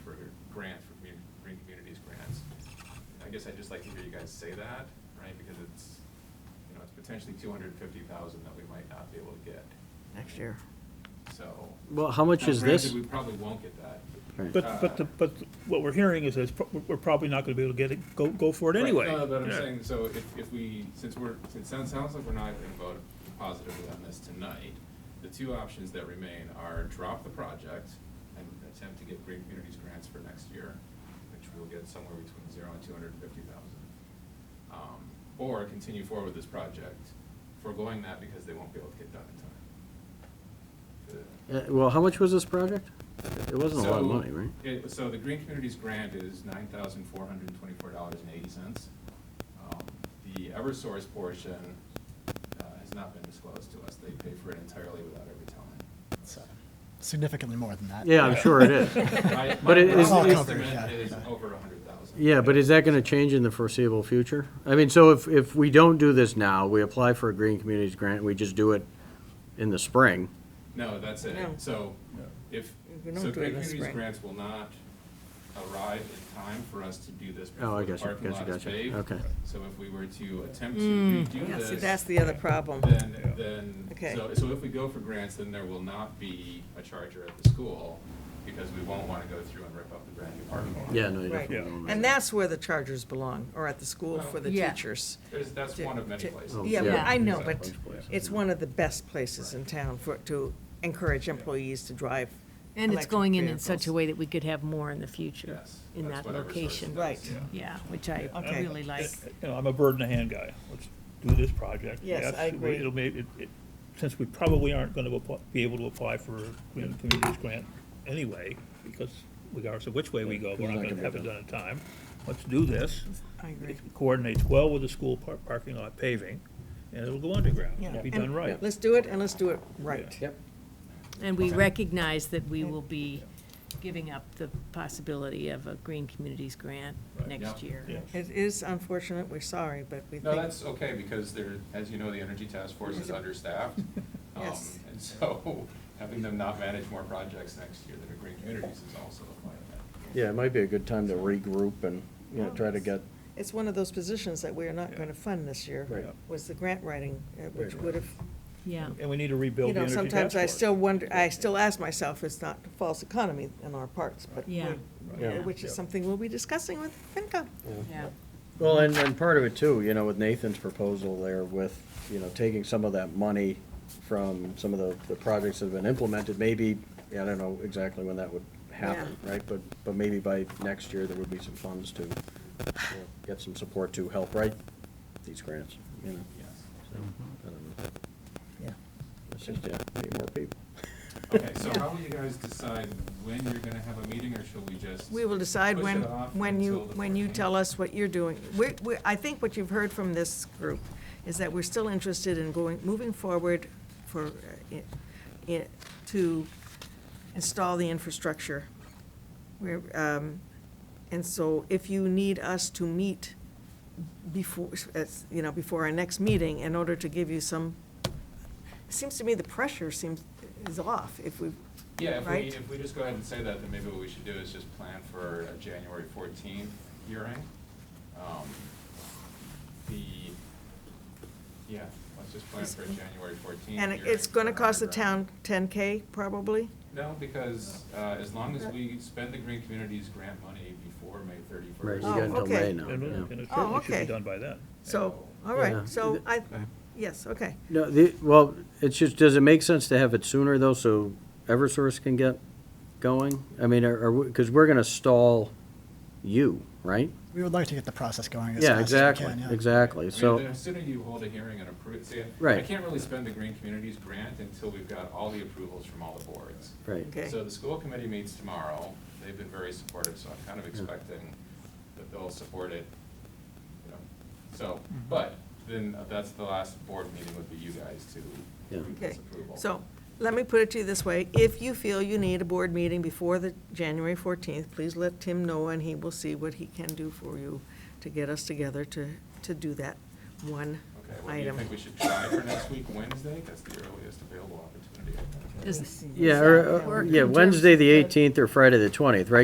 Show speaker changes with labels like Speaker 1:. Speaker 1: grant for Green, Green Communities grants. I guess I'd just like to hear you guys say that, right, because it's, you know, it's potentially two hundred and fifty thousand that we might not be able to get,
Speaker 2: next year.
Speaker 1: so.
Speaker 3: Well, how much
Speaker 1: Now,
Speaker 3: is
Speaker 1: granted,
Speaker 3: this?
Speaker 1: We probably won't get that. Uh,
Speaker 3: Right.
Speaker 4: But, but, the- but what we're hearing is that it's pro- we're probably not gonna be able to get it, go, go for it
Speaker 1: Right,
Speaker 4: anyway.
Speaker 1: No, but I'm
Speaker 4: Yeah.
Speaker 1: saying, so if, if we, since we're, since it sounds, sounds like we're not gonna vote positively on this tonight, the two options that remain are drop the project and attempt to get Green Communities grants for next year, which we'll get somewhere between zero and two hundred and fifty thousand. Um, or continue forward with this project, foregoing that because they won't be able to get done in time. The-
Speaker 3: Uh, Well, how much was this project? It wasn't a lot of
Speaker 1: so
Speaker 3: money, right?
Speaker 1: it- so the Green Communities Grant is nine thousand four hundred and twenty-four dollars and eighty cents. Um, The Eversource portion uh, has not been disclosed to us. They pay for it entirely without every telling.
Speaker 5: So, Significantly more than that.
Speaker 3: Yeah, I'm sure it is.
Speaker 1: My-
Speaker 3: But it is-
Speaker 1: My
Speaker 3: is-
Speaker 1: estimate is over a hundred thousand.
Speaker 3: Yeah, but is that gonna change in the foreseeable future? I mean, so if, if we don't do this now, we apply for a Green Communities grant, we just do it in the spring.
Speaker 1: No, that's it.
Speaker 2: No.
Speaker 1: So if,
Speaker 2: If we don't
Speaker 1: so
Speaker 2: do it in
Speaker 1: Green
Speaker 2: the
Speaker 1: Communities
Speaker 2: spring.
Speaker 1: Grants will not arrive in time for us to do this
Speaker 3: Oh, I
Speaker 1: before the
Speaker 3: gotcha,
Speaker 1: parking lot
Speaker 3: gotcha,
Speaker 1: is
Speaker 3: gotcha.
Speaker 1: paved.
Speaker 3: Okay.
Speaker 1: So if we were to attempt to redo
Speaker 2: Hmm. Yeah,
Speaker 1: this.
Speaker 2: see, that's the other problem.
Speaker 1: Then, then,
Speaker 2: Okay.
Speaker 1: so, so if we go for grants, then there will not be a charger at the school, because we won't wanna go through and rip up the brand new parking lot.
Speaker 3: Yeah, no, you
Speaker 2: Right.
Speaker 3: definitely
Speaker 4: Yeah.
Speaker 3: don't.
Speaker 2: And that's where the chargers belong, or at the school for the
Speaker 6: Yeah.
Speaker 2: teachers.
Speaker 1: There's, that's
Speaker 2: To-
Speaker 1: one of many
Speaker 2: to-
Speaker 1: places.
Speaker 3: Oh,
Speaker 2: Yeah, but
Speaker 3: yeah.
Speaker 2: I know,
Speaker 1: Exactly.
Speaker 2: but it's one of the best places in town for, to encourage employees to drive.
Speaker 6: And it's
Speaker 2: electric
Speaker 6: going in in such a
Speaker 2: vehicles.
Speaker 6: way that we could have more in the future
Speaker 1: Yes,
Speaker 6: in
Speaker 1: that's
Speaker 6: that
Speaker 1: what Eversource
Speaker 6: location.
Speaker 1: does.
Speaker 2: Right.
Speaker 6: Yeah, which I
Speaker 2: Okay.
Speaker 6: really like.
Speaker 4: Eh, You know, I'm a bird in the hand guy. Let's do this project.
Speaker 2: Yes, I agree.
Speaker 4: It'll make, it, it, since we probably aren't gonna apply- be able to apply for a Green Communities Grant anyway, because regardless of which way we go, we're not gonna have it done in time. Let's do this.
Speaker 2: I agree.
Speaker 4: It coordinates well with the school par- parking lot paving, and it'll go underground. It'll be
Speaker 2: And
Speaker 4: done right.
Speaker 2: Let's do it, and let's do it right.
Speaker 3: Yep.
Speaker 6: And we recognize that we will be giving up the possibility of a Green Communities grant
Speaker 1: Right.
Speaker 6: next
Speaker 1: Yeah.
Speaker 6: year.
Speaker 4: Yeah.
Speaker 2: It is unfortunate, we're sorry, but we think.
Speaker 1: No, that's okay, because there, as you know, the Energy Task Force is understaffed. Um,
Speaker 2: Yes.
Speaker 1: And so, having them not manage more projects next year that are green communities is also a part of
Speaker 3: Yeah, it might be a good time to regroup and, you know, try to get,
Speaker 2: It's one of those positions that we are not going to fund this year.
Speaker 3: Right.
Speaker 2: Was the grant writing, uh, which
Speaker 3: Right.
Speaker 2: would have,
Speaker 6: Yeah.
Speaker 4: And we need to
Speaker 2: you
Speaker 4: rebuild the
Speaker 2: know,
Speaker 4: Energy Task
Speaker 2: sometimes I
Speaker 4: Force.
Speaker 2: still wonder, I still ask myself, it's not false economy on our parts, but.
Speaker 6: Yeah.
Speaker 2: we-
Speaker 3: Yeah.
Speaker 2: Which is something we'll be discussing with FinCom.
Speaker 6: Yeah.
Speaker 3: well, and, and part of it too, you know, with Nathan's proposal there with, you know, taking some of that money from some of the, the projects that have been implemented, maybe, I don't know exactly when that would happen, right? But, but maybe by next year, there would be some funds to you know, get some support to help write these grants, you know?
Speaker 1: it, yes.
Speaker 3: So, I don't know.
Speaker 2: Yeah.
Speaker 3: It's just, yeah, need more people.
Speaker 1: Okay, so how will you guys decide when you're gonna have a meeting, or shall we just?
Speaker 2: We will decide
Speaker 1: push
Speaker 2: when,
Speaker 1: it off
Speaker 2: when you,
Speaker 1: until the
Speaker 2: when you
Speaker 1: 14th?
Speaker 2: tell us what you're doing. We, we, I think what you've heard from this group is that we're still interested in going, moving forward for, uh, i- i- to install the infrastructure. We're, um, and so if you need us to meet before, as, you know, before our next meeting in order to give you some, it seems to me the pressure seems, is off if we,
Speaker 1: Yeah, if we,
Speaker 2: right?
Speaker 1: if we just go ahead and say that, then maybe what we should do is just plan for a January fourteenth hearing. Um, The, yeah, let's just plan for a January fourteenth hearing.
Speaker 2: And it's gonna
Speaker 1: for
Speaker 2: cost the
Speaker 1: underground.
Speaker 2: town ten K probably?
Speaker 1: No, because, uh, as long as we spend the Green Communities grant money before May
Speaker 3: Right, you
Speaker 1: thirty-first.
Speaker 2: Oh,
Speaker 3: got until May
Speaker 2: okay.
Speaker 3: now.
Speaker 4: And
Speaker 3: yeah.
Speaker 4: it- and it
Speaker 2: Oh,
Speaker 4: certainly should
Speaker 2: okay.
Speaker 4: be done by then.
Speaker 2: So, all
Speaker 3: Yeah.
Speaker 2: right, so I,
Speaker 3: Okay.
Speaker 2: yes, okay.
Speaker 3: No, the, well, it's just, does it make sense to have it sooner though, so Eversource can get going? I mean, are, are, because we're gonna stall you, right?
Speaker 5: We would like to get the process going as
Speaker 3: Yeah,
Speaker 5: fast as we
Speaker 3: exactly,
Speaker 5: can, yeah.
Speaker 3: exactly,
Speaker 1: I mean,
Speaker 3: so,
Speaker 1: the sooner you hold a hearing and approve, see, I- I
Speaker 3: Right.
Speaker 1: can't really spend the Green Communities grant until we've got all the approvals from all the boards.
Speaker 3: right.
Speaker 2: Okay.
Speaker 1: So the school committee meets tomorrow. They've been very supportive, so I'm kind of expecting that they'll support it, you know. So, but then that's the last board meeting would be you guys to
Speaker 3: Yeah.
Speaker 1: approve
Speaker 2: Okay,
Speaker 1: this approval.
Speaker 2: so let me put it to you this way. If you feel you need a board meeting before the January fourteenth, please let Tim know and he will see what he can do for you to get us together to, to do that one
Speaker 1: Okay, well, do you
Speaker 2: item.
Speaker 1: think we should try for next week, Wednesday? That's the earliest available opportunity. I think.
Speaker 6: Does-
Speaker 3: Yeah, or-
Speaker 6: Work
Speaker 3: or, uh,
Speaker 6: in
Speaker 3: yeah,
Speaker 6: terms
Speaker 3: Wednesday,
Speaker 6: of
Speaker 3: the eighteenth or Friday the twentieth, right?